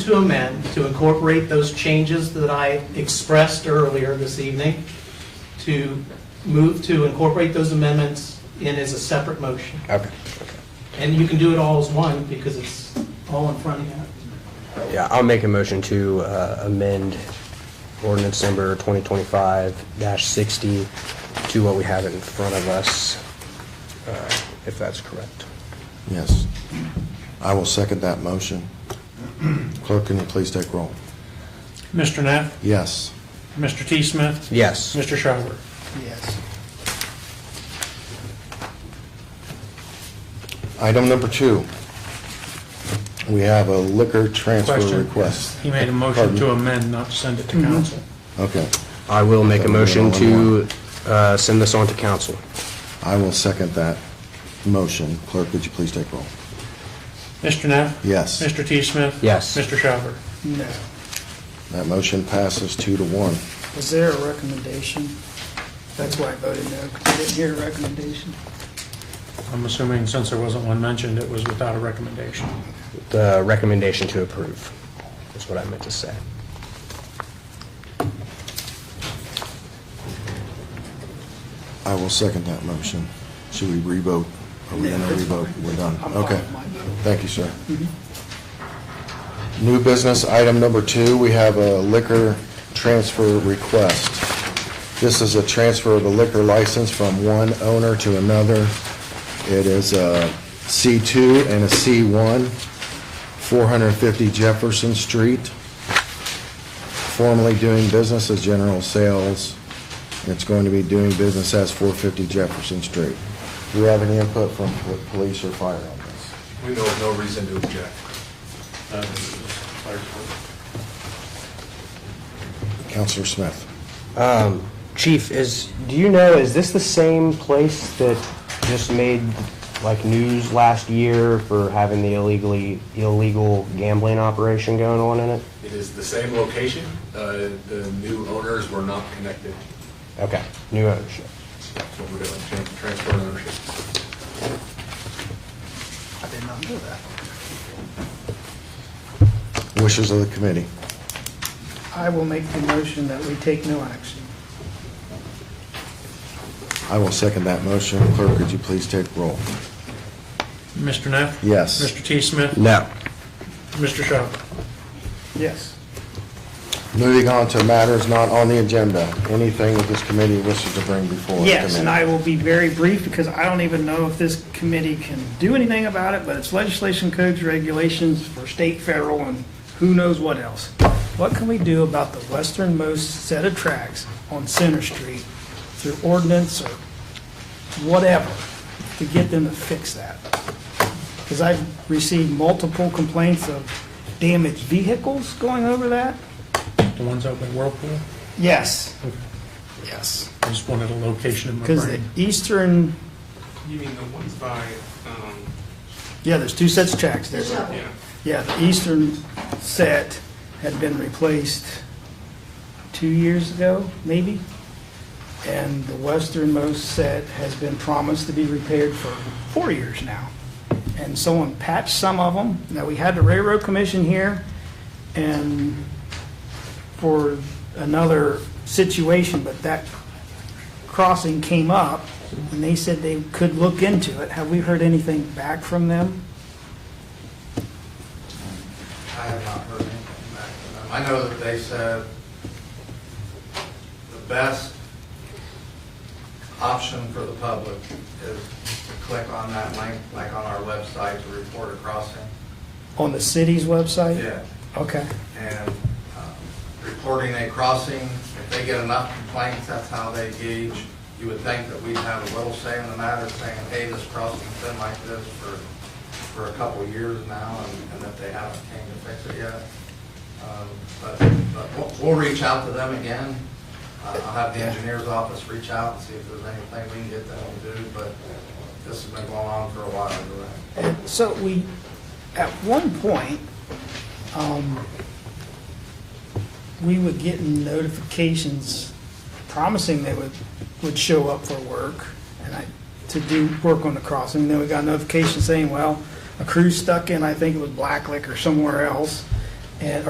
to amend, to incorporate those changes that I expressed earlier this evening, to move to incorporate those amendments in as a separate motion. Okay, And you can do it all as one, because it's all in front of you. yeah, I'll make a motion to uh, amend ordinance number 2025-60 to what we have in front of us, uh, if that's correct. Yes. I will second that motion. Clerk, can you please take roll? Mr. Neff, Yes. Mr. T. Smith, Yes, Mr. Schauber. Yes. Item number two, we have a liquor transfer Question. request. He made a motion to amend, not to send it to council. Okay, I will make a motion to uh, send this on to council. I will second that motion. Clerk, would you please take roll? Mr. Neff? Yes. Mr. T. Smith? Yes. Mr. Schauber. No. That motion passes two to one. Was there a recommendation? That's why I voted no, 'cause I didn't hear a recommendation. I'm assuming since there wasn't one mentioned, it was without a recommendation. The recommendation to approve is what I meant to say. I will second that motion. Should we revote? Are we going to revote? We're done. I'm fine Okay. with my vote. Thank you, sir. New business, item number two, we have a liquor transfer request. This is a transfer of a liquor license from one owner to another. It is a C2 and a C1, 450 Jefferson Street, formerly doing business as General Sales. It's going to be doing business as 450 Jefferson Street. Do we have any input from pol- police or fire on this? We know of no reason to object. Counselor Smith? Chief, is, do you know, is this the same place that just made like news last year for having the illegally, illegal gambling operation going on in it? It is the same location. Uh, The new owners were not connected. Okay, new ownership. That's what we're doing, tran- transfer ownership. I did not know that. Wishes of the committee. I will make the motion that we take no action. I will second that motion. Clerk, could you please take roll? Mr. Neff? Yes. Mr. T. Smith? No. Mr. Schauber. Yes. Moving on to matters not on the agenda, anything that this committee wishes to bring before the committee? Yes, and I will be very brief because I don't even know if this committee can do anything about it, but it's legislation, codes, regulations for state, federal, and who knows what else. What can we do about the westernmost set of tracks on Center Street through ordinance or whatever to get them to fix that? Because I've received multiple complaints of damaged vehicles going over that. The ones out by Whirlpool? Yes. Yes. I just wanted a location in my Because the brain. eastern You mean the ones by, um, Yeah, there's two sets of tracks. There's, yeah, yeah, the eastern set had been replaced two years ago, maybe? And the westernmost set has been promised to be repaired for four years now. And someone patched some of them. Now, we had the railroad commission here, and for another situation, but that crossing came up, and they said they could look into it. Have we heard anything back from them? I have not heard anything back from them. I know that they said the best option for the public is to click on that link, like on our website, to report a crossing. On the city's website? Yeah, Okay, and um, reporting a crossing, if they get enough complaints, that's how they gauge. You would think that we'd have a little say in the matter, saying, hey, this crossing's been like this for, for a couple of years now, and- and that they haven't came to fix it yet. Um, But, but we'll, we'll reach out to them again. Uh, I'll have the engineer's office reach out and see if there's anything we can get them to do, but this has been going on for a while, right? so we, at one point, um, we were getting notifications promising they would, would show up for work and I, to do work on the crossing. Then we got a notification saying, well, a crew's stuck in, I think it was Blacklick or somewhere else, and,